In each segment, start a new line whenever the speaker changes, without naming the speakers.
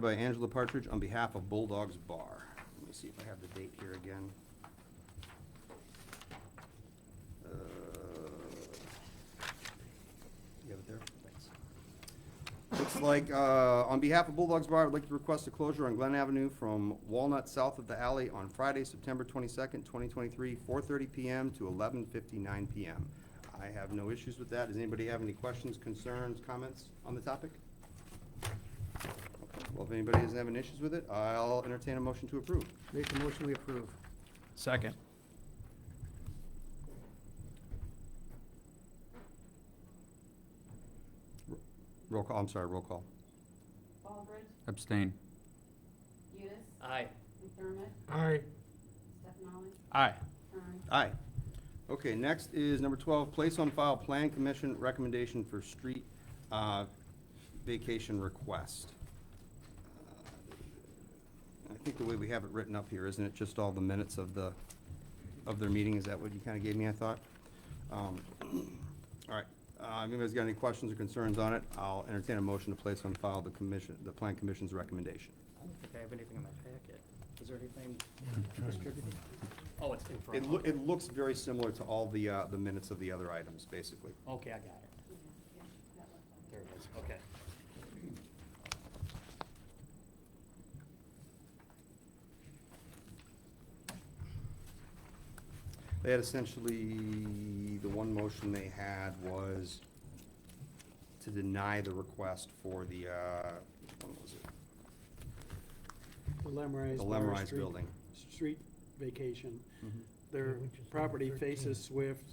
by Angela Partridge on behalf of Bulldogs Bar. Let me see if I have the date here again. Uh, You have it there? Thanks. Looks like, uh, on behalf of Bulldogs Bar, I'd like to request a closure on Glen Avenue from Walnut south of the alley on Friday, September twenty-second, twenty twenty-three, four thirty PM to eleven fifty-nine PM. I have no issues with that. Does anybody have any questions, concerns, comments on the topic? Okay, Well, if anybody isn't having issues with it, I'll entertain a motion to approve.
Make a motion, we approve.
Second.
Roll call, I'm sorry, roll call.
Baldridge,
Abstain.
Udis,
Aye.
McDermott,
Aye.
Stefani,
Aye.
Kern.
Aye. Okay, next is number twelve, place on file plan commission recommendation for street uh, vacation request. Uh, I think the way we have it written up here, isn't it just all the minutes of the, of their meeting? Is that what you kind of gave me, I thought? Um, All right, uh, if anybody's got any questions or concerns on it, I'll entertain a motion to place on file the commission, the plan commission's recommendation.
I don't think I have anything in my packet. Is there anything distributed? Oh, it's in front
It loo-
of me.
it looks very similar to all the, uh, the minutes of the other items, basically.
Okay, I got it. There it is, okay.
They had essentially, the one motion they had was to deny the request for the, uh, what was it?
The Lemrise.
The
Bar
Lemrise
Street-
Building.
Street vacation. Their property faces Swift.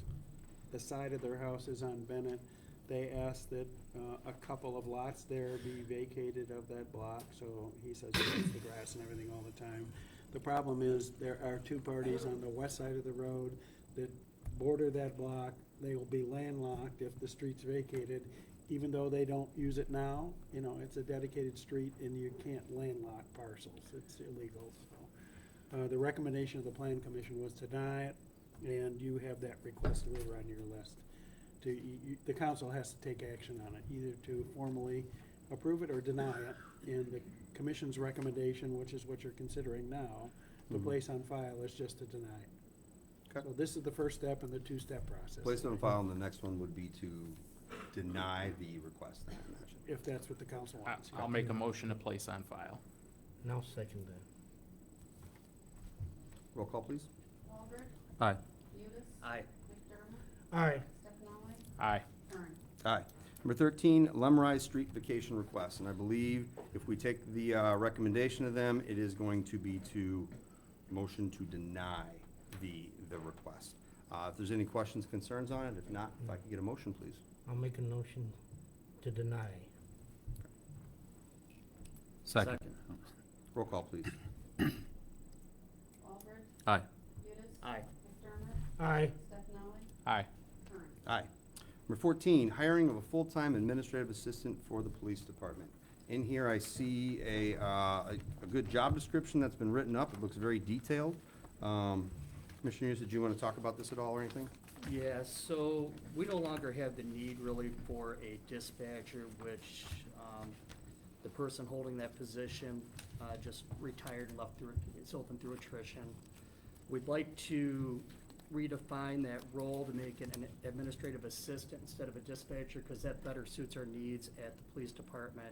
The side of their house is on Bennett. They asked that uh, a couple of lots there be vacated of that block, so he says he cuts the grass and everything all the time. The problem is, there are two parties on the west side of the road that border that block. They will be landlocked if the street's vacated, even though they don't use it now. You know, it's a dedicated street and you can't landlock parcels. It's illegal, so. Uh, The recommendation of the plan commission was to deny it, and you have that request over on your list. To, you- you- the council has to take action on it, either to formally approve it or deny it. And the commission's recommendation, which is what you're considering now, the
Mhm.
place on file is just to deny it.
Okay.
So this is the first step in the two-step process.
Place on file, and the next one would be to deny the request, I imagine.
If that's what the council
I-
wants.
I'll make a motion to place on file.
Now second that.
Roll call, please.
Baldridge,
Aye.
Udis,
Aye.
McDermott,
Aye.
Stefani,
Aye.
Kern.
Aye. Number thirteen, Lemrise Street Vacation Request, and I believe if we take the, uh, recommendation of them, it is going to be to motion to deny the, the request. Uh, if there's any questions, concerns on it, if not, if I could get a motion, please.
I'll make a motion to deny.
Second.
Roll call, please.
Baldridge,
Aye.
Udis.
Aye.
McDermott,
Aye.
Stefani,
Aye.
Kern.
Aye. Number fourteen, hiring of a full-time administrative assistant for the police department. In here, I see a, uh, a, a good job description that's been written up. It looks very detailed. Um, Commissioner Hughes, did you want to talk about this at all or anything?
Yeah, so we no longer have the need really for a dispatcher, which um, the person holding that position uh, just retired and left through, it's open through attrition. We'd like to redefine that role to make it an administrative assistant instead of a dispatcher, because that better suits our needs at the police department.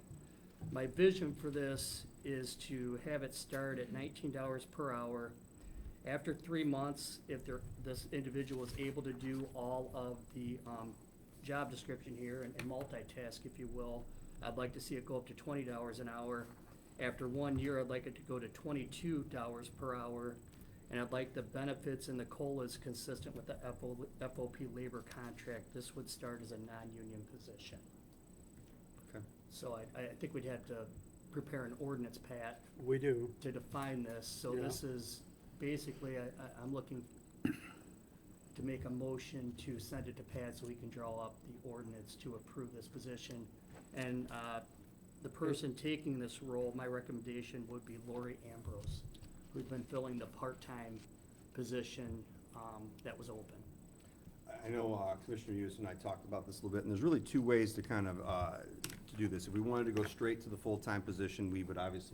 My vision for this is to have it start at nineteen dollars per hour. After three months, if there, this individual is able to do all of the, um, job description here and and multitask, if you will, I'd like to see it go up to twenty dollars an hour. After one year, I'd like it to go to twenty-two dollars per hour. And I'd like the benefits and the COLAs consistent with the FO FOP labor contract. This would start as a non-union position.
Okay.
So I, I think we'd have to prepare an ordinance, Pat,
We do.
to define this, so
Yeah.
this is, basically, I, I, I'm looking to make a motion to send it to Pat so he can draw up the ordinance to approve this position. And, uh, the person taking this role, my recommendation would be Lori Ambrose, who's been filling the part-time position, um, that was open.
I know uh, Commissioner Hughes and I talked about this a little bit, and there's really two ways to kind of, uh, to to do this. If we wanted to go straight to the full-time position, we would obviously